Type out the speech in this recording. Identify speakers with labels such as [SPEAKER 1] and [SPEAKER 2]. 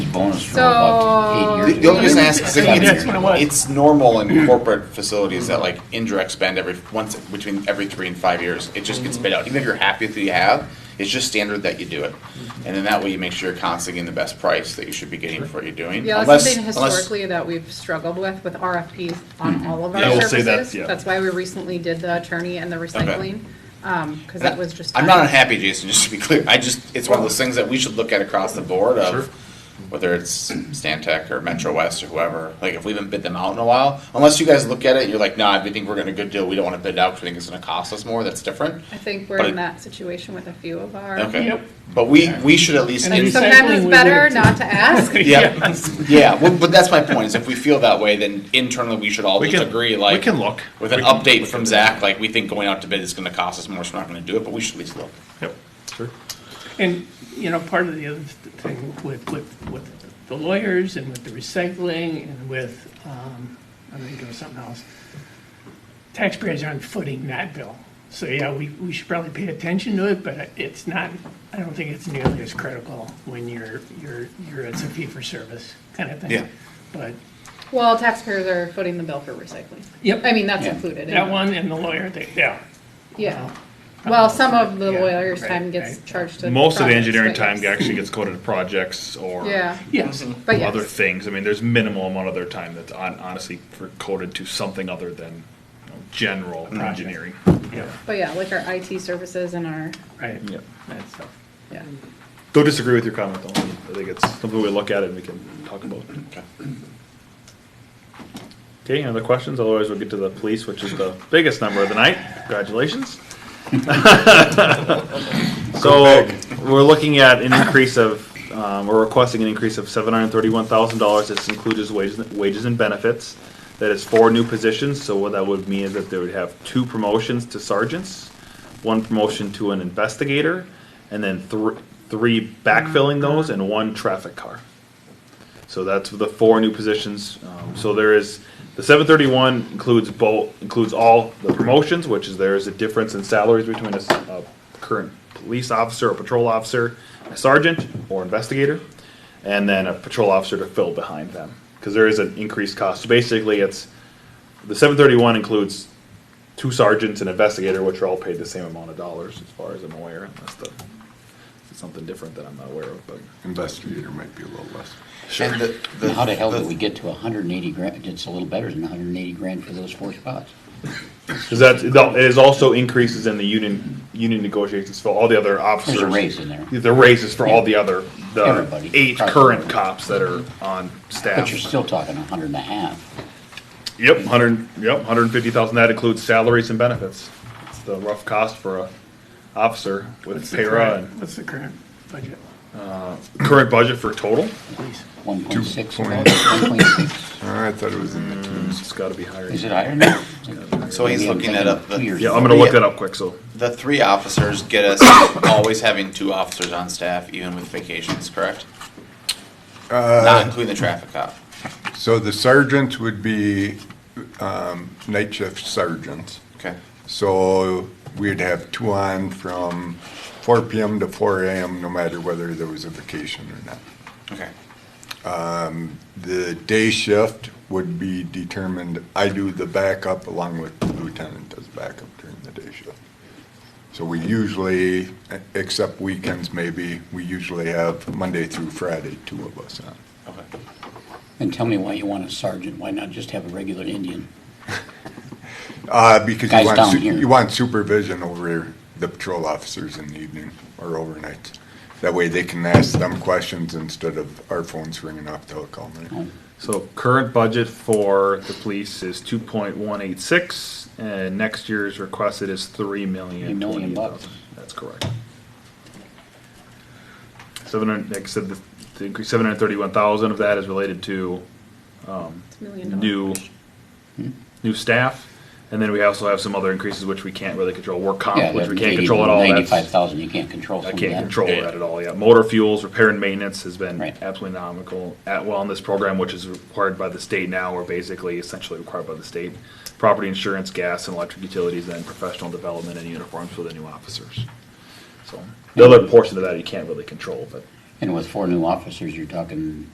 [SPEAKER 1] bonus for about
[SPEAKER 2] So-
[SPEAKER 1] eight years.
[SPEAKER 3] The the only reason I ask is
[SPEAKER 1] Seven
[SPEAKER 3] like,
[SPEAKER 4] That's what it was.
[SPEAKER 3] it's, it's normal in corporate facilities that like indirect spend every, once, between every three and five years, it just gets spit out. Even if you're happy with what you have, it's just standard that you do it. And then that way you make sure you're constantly getting the best price that you should be getting for what you're doing.
[SPEAKER 2] Yeah, that's
[SPEAKER 3] Unless-
[SPEAKER 2] something
[SPEAKER 3] unless-
[SPEAKER 2] historically that we've struggled with, with RFPs on all of our
[SPEAKER 4] Yeah, I will say
[SPEAKER 2] services.
[SPEAKER 4] that, yeah.
[SPEAKER 2] That's why we recently did the attorney and the recycling, because that was just.
[SPEAKER 3] I'm not unhappy, Jason, just to be clear. I just, it's one of those things that we should look at across the board
[SPEAKER 4] Sure.
[SPEAKER 3] of whether it's Stantec or Metro West or whoever. Like, if we haven't bid them out in a while, unless you guys look at it and you're like, nah, I think we're gonna good deal, we don't wanna bid out because we think it's gonna cost us more, that's different.
[SPEAKER 2] I think we're
[SPEAKER 3] But
[SPEAKER 2] in
[SPEAKER 3] it-
[SPEAKER 2] that situation with a few of our.
[SPEAKER 3] Okay.
[SPEAKER 4] Yep.
[SPEAKER 3] But we, we should at least,
[SPEAKER 4] And
[SPEAKER 2] Like
[SPEAKER 4] then
[SPEAKER 3] do-
[SPEAKER 2] sometimes
[SPEAKER 4] Recycling,
[SPEAKER 2] it's
[SPEAKER 4] we
[SPEAKER 2] better
[SPEAKER 4] would-
[SPEAKER 2] not to ask.
[SPEAKER 3] yeah, yeah, well, but that's my point, is if we feel that way, then internally, we should all
[SPEAKER 4] We
[SPEAKER 3] just
[SPEAKER 4] can-
[SPEAKER 3] agree, like.
[SPEAKER 4] we can look.
[SPEAKER 3] With an
[SPEAKER 4] We can
[SPEAKER 3] update
[SPEAKER 4] look
[SPEAKER 3] from
[SPEAKER 4] at
[SPEAKER 3] Zach, like, we think going out to bid is gonna cost us more, so we're not gonna do it, but we should at least look.
[SPEAKER 4] Yep, sure. And, you know, part of the other thing with, with, with the lawyers and with the recycling and with, um, I'm thinking of something else. Taxpayers aren't footing that bill. So, yeah, we, we should probably pay attention to it, but it's not, I don't think it's nearly as critical when you're, you're, you're, it's a fee-for-service kind of thing.
[SPEAKER 3] Yeah.
[SPEAKER 4] But
[SPEAKER 2] Well, taxpayers are footing the bill for recycling.
[SPEAKER 4] Yep.
[SPEAKER 2] I mean, that's
[SPEAKER 3] Yeah.
[SPEAKER 2] included. in
[SPEAKER 4] that
[SPEAKER 2] it.
[SPEAKER 4] one and the lawyer, they, yeah.
[SPEAKER 2] Yeah. Well, some of the
[SPEAKER 4] Yeah,
[SPEAKER 2] lawyer's
[SPEAKER 4] right,
[SPEAKER 2] time gets
[SPEAKER 4] right.
[SPEAKER 2] charged to.
[SPEAKER 5] Most of the
[SPEAKER 2] projects,
[SPEAKER 5] engineering
[SPEAKER 2] but
[SPEAKER 5] time
[SPEAKER 2] yes.
[SPEAKER 5] actually gets coded to projects or
[SPEAKER 2] Yeah,
[SPEAKER 4] Yes.
[SPEAKER 2] but
[SPEAKER 5] other
[SPEAKER 2] yes,
[SPEAKER 5] things. I mean, there's minimal amount of their time that's on, honestly for coded to something other than you know, general
[SPEAKER 3] Mm-hmm.
[SPEAKER 5] engineering.
[SPEAKER 4] Yeah,
[SPEAKER 2] but yeah, like our IT services and our,
[SPEAKER 4] right.
[SPEAKER 5] Yeah.
[SPEAKER 4] That stuff.
[SPEAKER 2] yeah.
[SPEAKER 5] Don't disagree with your comment though. I think it's something we look at and we can talk about.
[SPEAKER 3] Okay.
[SPEAKER 5] Okay, any other questions? Otherwise, we'll get to the police, which is the biggest number of the night. Congratulations. So, we're looking at an increase of, um, we're requesting an increase of seven hundred and thirty-one thousand dollars. This includes wages, wages and benefits. That is four new positions, so what that would mean is that they would have two promotions to sergeants, one promotion to an investigator, and then thr- three backfilling those and one traffic car. So that's the four new positions. Um, so there is, the seven thirty-one includes both, includes all the promotions, which is there is a difference in salaries between a, s- a current police officer, a patrol officer, a sergeant or investigator, and then a patrol officer to fill behind them. Cause there is an increased cost. So Basically, it's, the seven thirty-one includes two sergeants and investigator, which are all paid the same amount of dollars as far as I'm aware, unless the, it's something different that I'm not aware of, but.
[SPEAKER 6] Investigator might be a little less.
[SPEAKER 1] And the- the- How the hell did we get to hundred and eighty grand? It's a little better than hundred and eighty grand for those four spots.
[SPEAKER 5] Because that's, no, it is also increases in the union, union negotiations for all the other officers.
[SPEAKER 1] There's a raise in there.
[SPEAKER 5] The raises for all the other, the
[SPEAKER 1] Everybody.
[SPEAKER 5] eight current cops that are on
[SPEAKER 1] But
[SPEAKER 5] staff.
[SPEAKER 1] you're still talking a hundred and a half.
[SPEAKER 5] Yep, hundred, yep, hundred and fifty thousand, that includes salaries and benefits. It's the rough cost for a officer with
[SPEAKER 4] What's the
[SPEAKER 5] para
[SPEAKER 4] current-
[SPEAKER 5] and
[SPEAKER 4] What's the current budget,
[SPEAKER 5] current budget for total.
[SPEAKER 4] please?
[SPEAKER 1] One point six,
[SPEAKER 6] Two
[SPEAKER 1] one
[SPEAKER 6] point-
[SPEAKER 1] point six.
[SPEAKER 6] Oh, I thought it was in the twos.
[SPEAKER 5] It's gotta be higher.
[SPEAKER 1] Is it higher now?
[SPEAKER 3] So he's
[SPEAKER 1] Maybe I'm
[SPEAKER 3] looking that
[SPEAKER 1] thinking
[SPEAKER 3] up, but-
[SPEAKER 1] two years
[SPEAKER 5] Yeah,
[SPEAKER 1] ago.
[SPEAKER 5] I'm gonna look that up quick, so.
[SPEAKER 3] The three officers get us always having two officers on staff, even with vacations, correct? Not including the traffic cop.
[SPEAKER 6] So the sergeants would be um, night shift sergeants.
[SPEAKER 3] Okay.
[SPEAKER 6] So we'd have two on from four PM to four AM, no matter whether there was a vacation or not.
[SPEAKER 3] Okay.
[SPEAKER 6] The day shift would be determined, I do the backup along with the lieutenant does backup during the day shift. So we usually, except weekends maybe, we usually have Monday through Friday, two of us on.
[SPEAKER 3] Okay.
[SPEAKER 1] And tell me why you want a sergeant. Why not just have a regular Indian?
[SPEAKER 6] Uh, because you
[SPEAKER 1] Guys
[SPEAKER 6] want,
[SPEAKER 1] down
[SPEAKER 6] su-
[SPEAKER 1] here.
[SPEAKER 6] you want supervision over the patrol officers in the evening or overnight. That way they can ask them questions instead of our phones ringing off the hook all
[SPEAKER 1] Oh,
[SPEAKER 6] night.
[SPEAKER 5] So current budget for the police is two point one eight six, and next year's requested is three
[SPEAKER 1] Three
[SPEAKER 5] million
[SPEAKER 1] million
[SPEAKER 5] twenty
[SPEAKER 1] bucks.
[SPEAKER 5] thousand. That's correct. Seven hundred, like I said, the the increase, seven hundred thirty-one thousand of that is related to
[SPEAKER 2] It's a million dollars.
[SPEAKER 5] new,
[SPEAKER 1] Hmm?
[SPEAKER 5] new staff. And then we also have some other increases which we can't really control, work
[SPEAKER 1] Yeah,
[SPEAKER 5] comp, which we can't
[SPEAKER 1] that's
[SPEAKER 5] control at all. That's-
[SPEAKER 1] Ninety-five thousand, you can't control
[SPEAKER 5] I
[SPEAKER 1] some of
[SPEAKER 5] can't
[SPEAKER 1] that.
[SPEAKER 5] control
[SPEAKER 3] Yeah.
[SPEAKER 5] that at all, yeah. Motor fuels, repair and maintenance has been
[SPEAKER 1] Right.
[SPEAKER 5] absolutely nominal. At wellness program, which is required by the state now, or basically essentially required by the state. Property insurance, gas and electric utilities, then professional development and uniforms for the new officers. So, the other portion of that you can't really control, but.
[SPEAKER 1] And with four new officers, you're talking